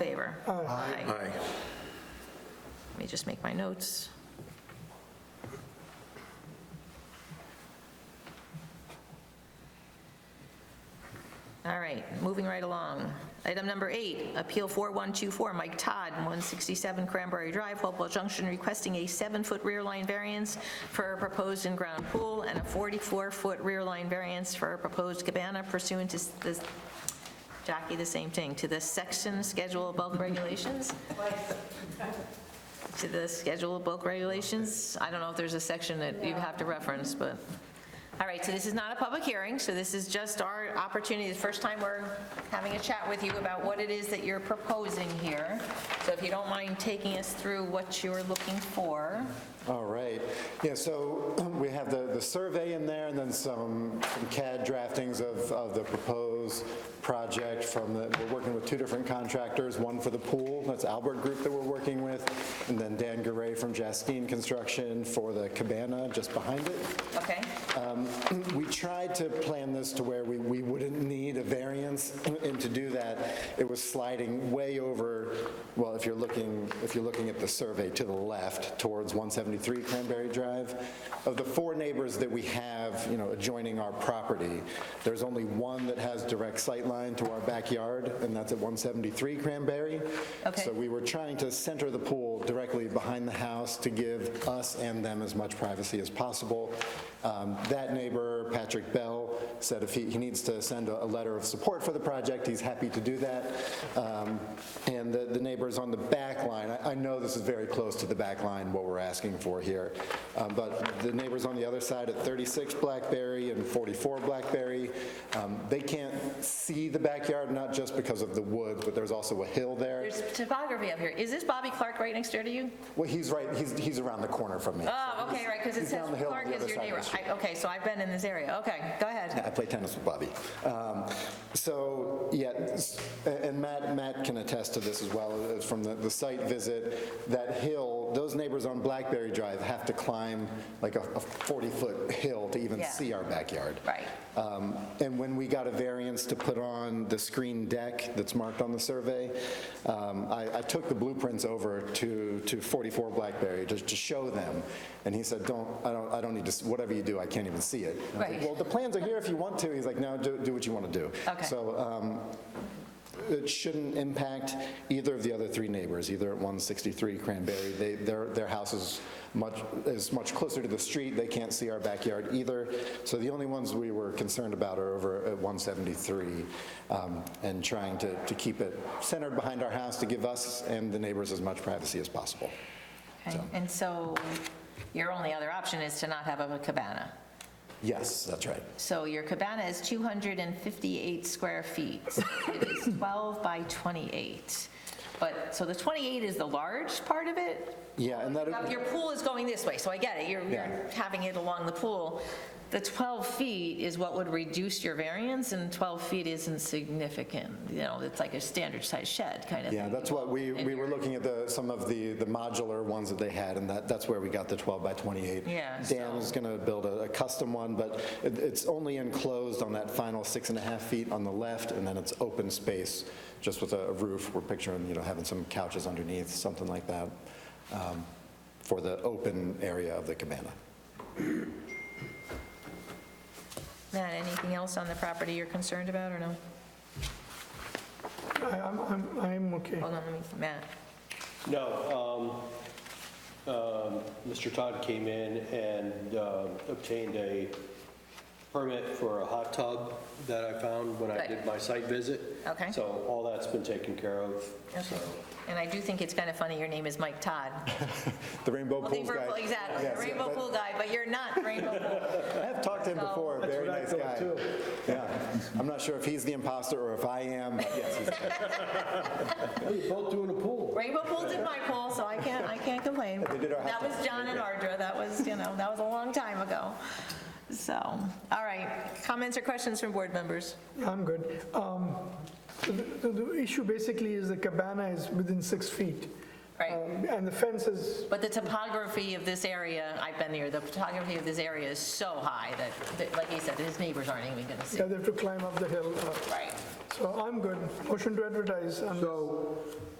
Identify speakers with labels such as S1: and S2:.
S1: Favor? Aye.
S2: Aye.
S1: Let me just make my notes. All right, moving right along. Item number eight, Appeal 4124, Mike Todd, 167 Cranberry Drive, Hopewell Junction, requesting a seven-foot rear line variance for a proposed in-ground pool and a 44-foot rear line variance for a proposed cabana pursuant to s- the, Jackie, the same thing, to the section schedule above regulations? to the schedule of bulk regulations. I don't know if there's a section that you have to reference, but, all right, so this is not a public hearing, so this is just our opportunity, the first time we're having a chat with you about what it is that you're proposing here. So if you don't mind taking us through what you're looking for.
S3: All right. Yeah, so we have the, the survey in there and then some some CAD draftings of, of the proposed project from the, we're working with two different contractors, one for the pool, that's Albert Group that we're working with, and then Dan Garay from Jaskeen Construction for the cabana just behind it.
S1: Okay?
S3: We tried to plan this to where we, we wouldn't need a variance, and to do that, it was sliding way over, well, if you're looking, if you're looking at the survey to the left, towards 173 Cranberry Drive. Of the four neighbors that we have, you know, adjoining our property, there's only one that has direct sight line to our backyard, and that's at 173 Cranberry.
S1: Okay.
S3: So we were trying to center the pool directly behind the house to give us and them as much privacy as possible. Um, That neighbor, Patrick Bell, said if he, he needs to send a a letter of support for the project, he's happy to do that. Um, And the the neighbors on the back line, I- I know this is very close to the back line, what we're asking for here, Um, but the neighbors on the other side at 36 Blackberry and 44 Blackberry, um, they can't see the backyard, not just because of the woods, but there's also a hill there.
S1: There's topography up here. Is this Bobby Clark right next door to you?
S3: Well, he's right, he's, he's around the corner from me.
S1: Oh, okay, right, because it
S3: He's
S1: says
S3: down the hill on
S1: Clark
S3: the
S1: is
S3: other
S1: your
S3: side of
S1: neighbor.
S3: the street.
S1: I- Okay, so I've been in this area. Okay, go ahead.
S3: I play tennis with Bobby. Um, So, yeah, s- and Matt, Matt can attest to this as well, uh, from the, the site visit, that hill, those neighbors on Blackberry Drive have to climb like a 40-foot hill to even
S1: Yeah.
S3: see our backyard.
S1: Right.
S3: Um, And when we got a variance to put on the screen deck that's marked on the survey, um, I I took the blueprints over to to 44 Blackberry just to show them, and he said, "Don't, I don't, I don't need to, s- whatever you do, I can't even see it." And I was like,
S1: Right.
S3: Well, the plans are here if you want to. He's like, "No, do do what you want to do."
S1: Okay.
S3: So um, it shouldn't impact either of the other three neighbors, either at 163 Cranberry. They, their, their house is much, is much closer to the street, they can't see our backyard either. So the only ones we were concerned about are over at 173, um, and trying to, to keep it centered behind our house to give us and the neighbors as much privacy as possible.
S1: Okay, And so your only other option is to not have a cabana?
S3: Yes, that's right.
S1: So your cabana is 258 square feet. It is 12 by 28. But, so the 28 is the large part of it?
S3: Yeah, and that,
S1: Your pool is going this way, so I get it. You're you're
S3: Yeah.
S1: having it along the pool. The 12 feet is what would reduce your variance, and 12 feet isn't significant. You know, it's like a standard size shed kind of thing.
S3: yeah, that's what, we, we were looking at the, some of the, the modular ones that they had, and that, that's where we got the 12 by 28.
S1: Yeah,
S3: Dan was going to build a a custom one, but it- it's only enclosed on that final six and a half feet on the left, and then it's open space, just with a roof. We're picturing, you know, having some couches underneath, something like that, um, for the open area of the cabana.
S1: Matt, anything else on the property you're concerned about, or no?
S4: I- I'm, I'm, I'm okay.
S1: Hold on, let me, Matt.
S5: No, um, um, Mr. Todd came in and um, obtained a permit for a hot tub that I found when I
S1: Good.
S5: did my site visit.
S1: Okay.
S5: So all that's been taken care of, so.
S1: And I do think it's kind of funny, your name is Mike Todd.
S3: The Rainbow
S1: Well, the
S3: Pools guy.
S1: Rainbow- Exactly, the
S3: Yes,
S1: Rainbow
S3: but
S1: Pool guy, but you're not Rainbow Pool.
S3: I have talked to him
S1: So-
S3: before, very nice guy. Yeah, I'm not sure if he's the imposter or if I am, but yes, he's
S5: Both doing a pool.
S1: Rainbow Pool did my pool, so I can't, I can't complain.
S3: They did our hot
S1: That was
S3: tub.
S1: John and Ardra, that was, you know, that was a long time ago. So, all right, comments or questions from board members?
S4: I'm good. Um, The the- the issue basically is the cabana is within six feet.
S1: Right,
S4: Um, And the fence is,
S1: but the topography of this area, I've been here, the topography of this area is so high that, that, like he said, his neighbors aren't even gonna see.
S4: yeah, they have to climb up the hill. uh,
S1: Right,
S4: So I'm good. Motion to advertise. and-
S2: So